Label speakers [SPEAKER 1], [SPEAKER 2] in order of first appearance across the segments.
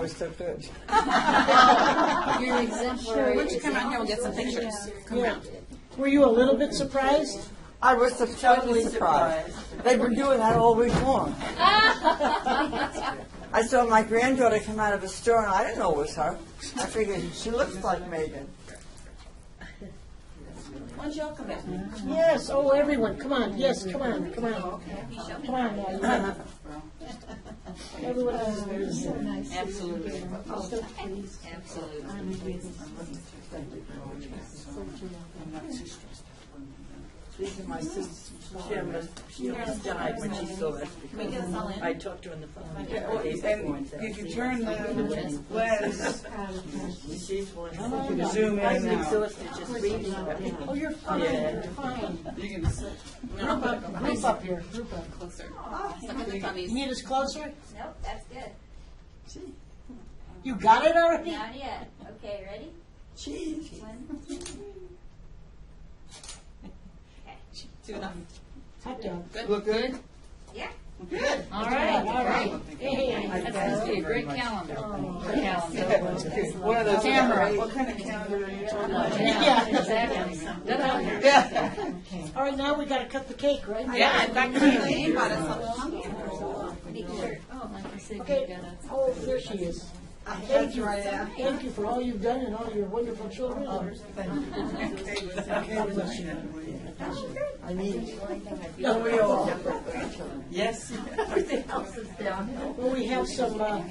[SPEAKER 1] was so good.
[SPEAKER 2] You're an exemplary.
[SPEAKER 3] Why don't you come out here, we'll get some pictures. Come out.
[SPEAKER 4] Were you a little bit surprised?
[SPEAKER 1] I was so totally surprised. They were doing that all week long. I saw my granddaughter come out of a store, and I didn't know it was her. I figured she looks like Megan.
[SPEAKER 3] Why don't you all come back?
[SPEAKER 4] Yes, oh, everyone, come on, yes, come on, come on. Come on, now, you have it. Everyone else.
[SPEAKER 3] Absolutely. Absolutely.
[SPEAKER 1] These are my sister's pajamas. She almost died when she saw it. I talked to her on the phone.
[SPEAKER 5] You can turn the lens,
[SPEAKER 1] She's one.
[SPEAKER 5] zoom in
[SPEAKER 1] I'm
[SPEAKER 5] now.
[SPEAKER 1] exhausted just reading about it.
[SPEAKER 4] Oh, you're fine, you're fine.
[SPEAKER 5] You can
[SPEAKER 4] Group up, group up here, group up.
[SPEAKER 3] Closer. Some of the
[SPEAKER 4] You
[SPEAKER 3] tummies.
[SPEAKER 4] need us closer?
[SPEAKER 6] Nope, that's good.
[SPEAKER 4] You got it already?
[SPEAKER 6] Not yet. Okay, ready?
[SPEAKER 1] Cheese.
[SPEAKER 3] Do it up.
[SPEAKER 4] Hot dog.
[SPEAKER 5] look good.
[SPEAKER 6] Yeah.
[SPEAKER 3] All right, all right.
[SPEAKER 4] Hey,
[SPEAKER 3] That's supposed to be a great calendar. Calendar.
[SPEAKER 5] One of those.
[SPEAKER 3] Camera.
[SPEAKER 5] What kind of calendar are you talking about?
[SPEAKER 3] Yeah, exactly. Da-da.
[SPEAKER 5] Yeah.
[SPEAKER 4] all right, now we gotta cut the cake, right?
[SPEAKER 3] Yeah, in fact, we bought us something.
[SPEAKER 4] Okay,
[SPEAKER 3] uh,
[SPEAKER 4] oh, there she is. Thank you, thank you for all you've done and all your wonderful children.
[SPEAKER 3] Oh,
[SPEAKER 4] God bless you.
[SPEAKER 1] I mean,
[SPEAKER 4] No,
[SPEAKER 1] we all different.
[SPEAKER 5] Yes.
[SPEAKER 4] Well, we have some, uh,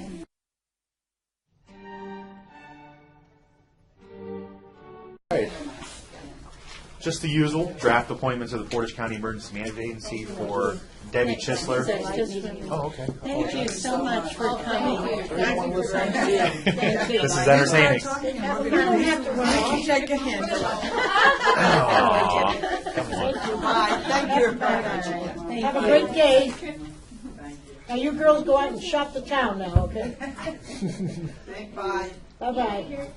[SPEAKER 7] Just the usual draft appointments of the Portage County Emergency Management Agency for Debbie Chisler. Oh, okay.
[SPEAKER 4] thank you so much for coming.
[SPEAKER 7] This is entertaining.
[SPEAKER 4] You don't have to run off.
[SPEAKER 1] Shake a hand.
[SPEAKER 7] Aw.
[SPEAKER 1] Hi, thank you.
[SPEAKER 4] Have a great day. Now, you girls go out and shop the town now, okay?
[SPEAKER 1] Bye.
[SPEAKER 4] Bye-bye.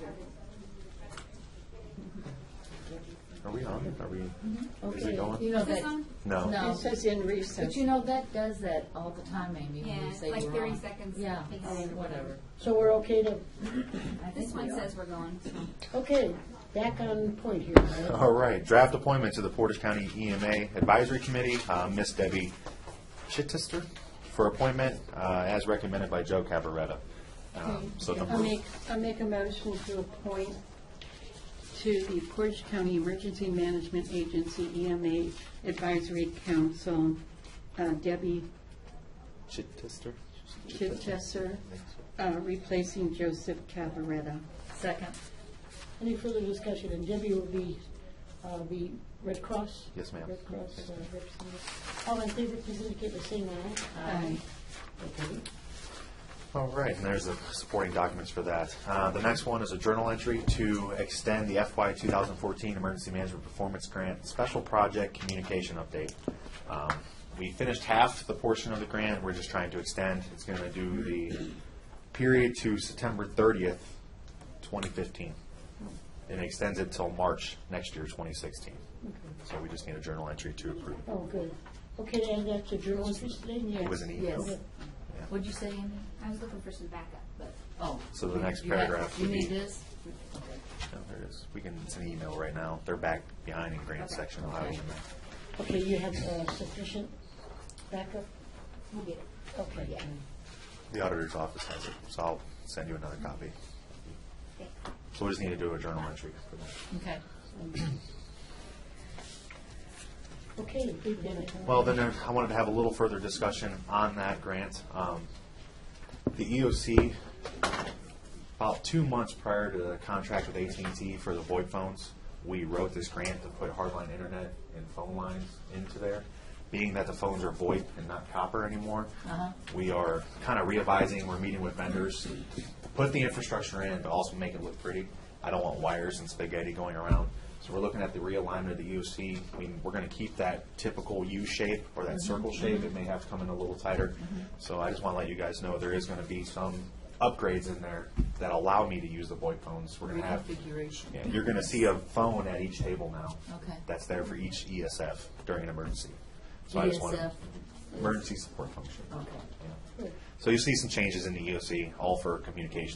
[SPEAKER 7] Are we on? Are we, is it going?
[SPEAKER 2] You know that,
[SPEAKER 7] No.
[SPEAKER 2] no,
[SPEAKER 4] says in recess.
[SPEAKER 2] but you know, that does that all the time, Amy, when
[SPEAKER 6] Yeah,
[SPEAKER 2] you say
[SPEAKER 6] like
[SPEAKER 2] you're
[SPEAKER 6] 30
[SPEAKER 2] on.
[SPEAKER 6] seconds.
[SPEAKER 2] Yeah,
[SPEAKER 6] Thanks.
[SPEAKER 2] or whatever.
[SPEAKER 4] So we're okay to,
[SPEAKER 2] I
[SPEAKER 6] This
[SPEAKER 2] think we
[SPEAKER 6] one
[SPEAKER 2] are.
[SPEAKER 6] says we're going.
[SPEAKER 4] okay, back on point here. all right?
[SPEAKER 7] All right, draft appointments of the Portage County EMA Advisory Committee, uh, Miss Debbie Chittister for appointment, uh, as recommended by Joe Cabaretta. Um, So the
[SPEAKER 8] I make, I make a motion to appoint to the Portage County Emergency Management Agency, EMA Advisory Council, uh, Debbie
[SPEAKER 7] Chittister?
[SPEAKER 8] Chichester, uh, replacing Joseph Cavaretta.
[SPEAKER 2] Second.
[SPEAKER 4] Any further discussion, and Debbie will be, uh, be Red Cross?
[SPEAKER 7] Yes, ma'am.
[SPEAKER 4] Red Cross, uh, representative. All in favor, please indicate by saying aye.
[SPEAKER 8] Aye.
[SPEAKER 7] All right, and there's the supporting documents for that. Uh, The next one is a journal entry to extend the FY 2014 Emergency Management Performance Grant Special Project Communication Update. Um, We finished half the portion of the grant, we're just trying to extend. It's going to do the period to September 30th, 2015. And it extends it till March next year, 2016. So we just need a journal entry to approve.
[SPEAKER 4] Oh, good. Okay, and that's a journal entry today?
[SPEAKER 7] It was an email.
[SPEAKER 2] Yes. What'd you say, Amy?
[SPEAKER 6] I was looking for some backup, but
[SPEAKER 2] Oh.
[SPEAKER 7] So the next
[SPEAKER 2] you have-
[SPEAKER 7] paragraph
[SPEAKER 2] You
[SPEAKER 7] would be-
[SPEAKER 2] need this?
[SPEAKER 7] No, there it is. We can, it's an email right now. They're back behind in grant section. I'll have it in there.
[SPEAKER 4] Okay, you have uh, sufficient backup?
[SPEAKER 6] we'll get it.
[SPEAKER 4] Okay.
[SPEAKER 7] The auditor's office has it, so I'll send you another copy. So we just need to do a journal entry for that.
[SPEAKER 2] Okay.
[SPEAKER 4] Okay, big minute.
[SPEAKER 7] Well, then there- I wanted to have a little further discussion on that grant. Um, The EOC, about two months prior to the contract with AT&T for the VoIP phones, we wrote this grant to put hardline internet and phone lines into there. Being that the phones are VoIP and not copper anymore, we are kind of revising, we're meeting with vendors, to put the infrastructure in, but also make it look pretty. I don't want wires and spaghetti going around. So we're looking at the realignment of the EOC. I mean, we're going to keep that typical U shape or that circle shape. It may have to come in a little tighter. So I just want to let you guys know there is going to be some upgrades in there that allow me to use the VoIP phones. We're going to have.
[SPEAKER 2] Reconfiguration.
[SPEAKER 7] Yeah, you're going to see a phone at each table now.
[SPEAKER 2] Okay.
[SPEAKER 7] That's there for each E ESF during an emergency. So I just want
[SPEAKER 2] ESF.
[SPEAKER 7] emergency support function.
[SPEAKER 2] Okay.
[SPEAKER 7] Yeah. So you see some changes in the EOC, all for communication